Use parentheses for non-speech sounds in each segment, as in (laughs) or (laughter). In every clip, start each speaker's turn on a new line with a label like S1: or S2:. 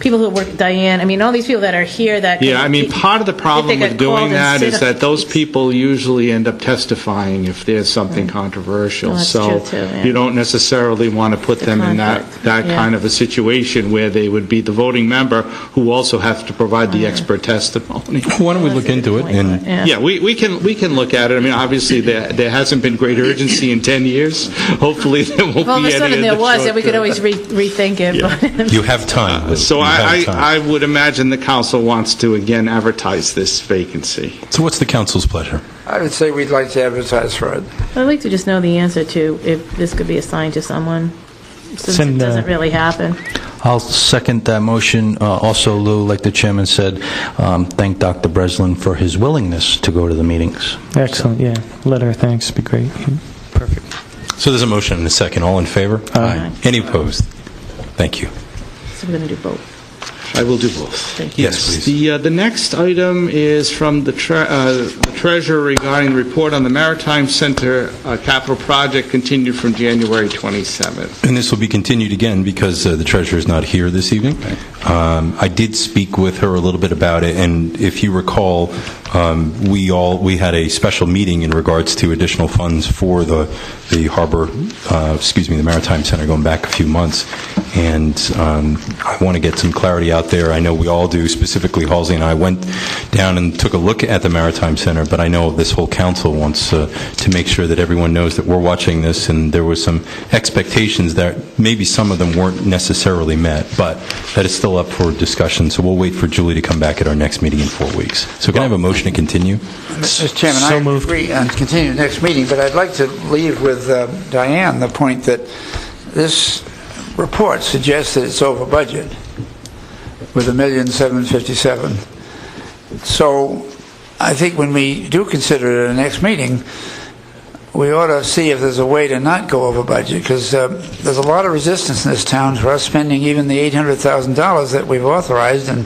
S1: people who work, Diane, I mean, all these people that are here that.
S2: Yeah, I mean, part of the problem
S1: got called
S2: with doing
S1: and
S2: that
S1: sit
S2: is
S1: up-
S2: that
S1: (laughs)
S2: those people usually end up testifying if there's something controversial.
S1: No, that's true, too, yeah.
S2: So you don't necessarily want to put them in that,
S1: conflict,
S2: that
S1: yeah.
S2: kind of a situation where they would be the voting member who also has to provide the expert testimony.
S3: Why don't we look into it and
S2: Yeah, we, we can, we can look at it. I mean, obviously, there, there hasn't been great urgency in 10 years. (laughs) Hopefully, there won't be any.
S1: Well, all of a sudden
S2: in
S1: there
S2: the
S1: was,
S2: short
S1: and we could
S2: term.
S1: always re- rethink it, but.
S3: You have time. Lou.
S2: So
S3: You
S2: I,
S3: have
S2: I I
S3: time.
S2: would imagine the council wants to again advertise this vacancy.
S3: So what's the council's pleasure?
S4: I would say we'd like to advertise for it.
S1: (laughs) I'd like to just know the answer to if this could be assigned to someone, since it
S5: Send, uh,
S1: doesn't really happen.
S5: I'll second that motion. Uh, Also, Lou, like the chairman said, um, thank Dr. Breslin for his willingness to go to the meetings.
S6: Excellent, Oh, yeah. Letter of thanks would be great.
S3: So there's a motion and a second. All in favor?
S1: Aye.
S3: Any opposed? Thank you.
S1: So we're going to do both.
S2: I will do both.
S1: Thank
S3: you. Yes, please.
S2: The, uh, the next item is from the tre- uh, the treasurer regarding the report on the Maritime Center uh, capital project continued from January 27th.
S3: And this will be continued again because uh, the treasurer is not here this evening. Um, I did speak with her a little bit about it, and if you recall, um, we all, we had a special meeting in regards to additional funds for the the harbor, uh, excuse me, the Maritime Center going back a few months, and um, I want to get some clarity out there. I know we all do, specifically Halsey and I went down and took a look at the Maritime Center, but I know this whole council wants uh, to make sure that everyone knows that we're watching this, and there was some expectations that maybe some of them weren't necessarily met, but that is still up for discussion, so we'll wait for Julie to come back at our next meeting in four weeks. So can I have a motion to continue?
S4: Mr. Chairman,
S6: So
S4: I
S6: moved.
S4: agree and continue the next meeting, but I'd like to leave with uh, Diane the point that this report suggests that it's over budget with a million seven fifty-seven. So I think when we do consider it at the next meeting, we ought to see if there's a way to not go over budget, because there's a lot of resistance in this town for us spending even the $800,000 that we've authorized, and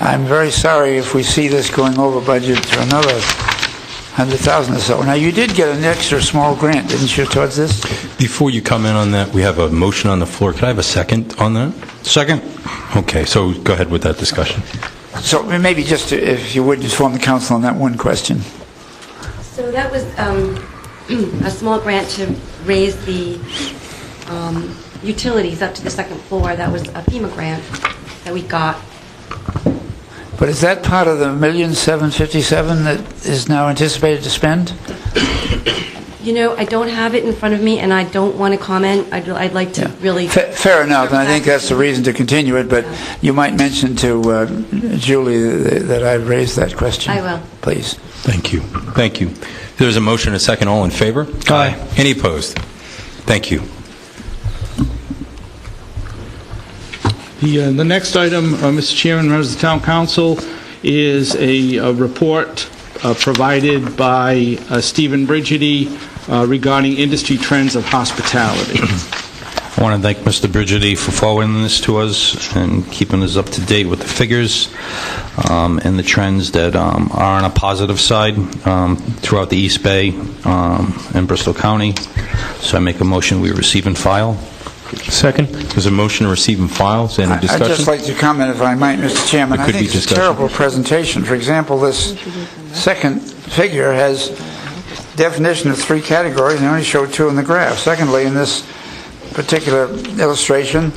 S4: I'm very sorry if we see this going over budget to another 100,000 or so. Now, you did get an extra small grant, didn't you, towards this?
S3: Before you comment on that, we have a motion on the floor. Could I have a second on that?
S5: Second.
S3: Okay, so go ahead with that discussion.
S4: So maybe just, to- if you would, inform the council on that one question.
S7: So that was um, (clears throat) a small grant to raise the um, utilities up to the second floor. That was a FEMA grant that we got.
S4: But is that part of the 1,757,000 that is now anticipated to spend?
S7: You know, I don't have it in front of me, and I don't want to comment. I'd I'd like to really...
S4: Fa- Fair enough, and I think that's the reason to continue it, but you might mention to uh, Julie th- that I raised that question.
S7: I will.
S4: Please.
S3: Thank you. Thank you. There's a motion, a second. All in favor?
S5: Aye.
S3: Any opposed? Thank you.
S2: The, uh, the next item, uh, Mr. Chairman, members of the town council, is a, uh report uh, provided by uh, Stephen Brigidy uh, regarding industry trends of hospitality.
S5: I want to thank Mr. Brigidi for forwarding this to us and keeping us up to date with the figures um, and the trends that um, are on a positive side um, throughout the East Bay um, and Bristol County. So I make a motion, we receive and file.
S6: Second?
S3: There's a motion to receive and file. Is there any
S4: I'd just
S3: discussion?
S4: like to comment, if I might, Mr. Chairman.
S3: There
S4: I
S3: could be
S4: think it's a
S3: discussion.
S4: terrible presentation. For example, this second figure has definition of three categories, and they only show two in the graph. Secondly, in this particular illustration,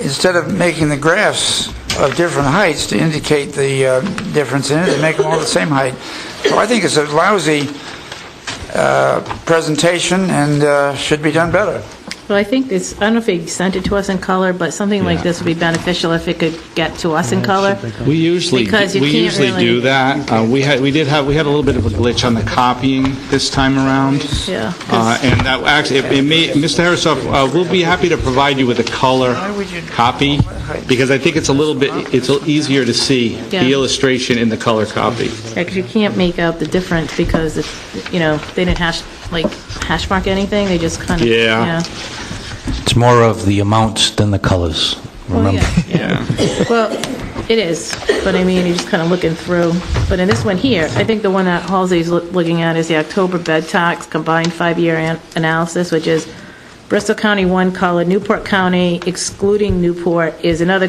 S4: instead of making the graphs of different heights to indicate the uh, difference in it, they make them all the same height. So I think it's a lousy uh, presentation and uh, should be done better.
S1: Well, I think it's, I don't know if he sent it to us in color, but something like this would be beneficial if it could get to us in color.
S2: We usually,
S1: Because you
S2: we
S1: can't
S2: usually
S1: really-
S2: do that. Uh, We had, we did have, we had a little bit of a glitch on the copying this time around.
S1: Yeah.
S2: Uh, And that, actually, it- it may, Mr. Harrisoff, uh, we'll be happy to provide you with a color
S4: would you-
S2: copy, because I think it's a little bit, it's easier to see
S1: Yeah.
S2: the illustration in the color copy.
S1: Because you can't make out the difference because, it's you know, they didn't hash, like, hash mark anything, they just kind of,
S2: Yeah.
S1: yeah.
S5: It's more of the amounts than the colors,
S1: Well,
S5: remember?
S1: Oh, yeah, yeah. (laughs) Well, it is, but I mean, you're just kind of looking through. But in this one here, I think the one that Halsey's loo- looking at is the October bed tax combined five-year an- analysis, which is Bristol County one color, Newport County excluding Newport is another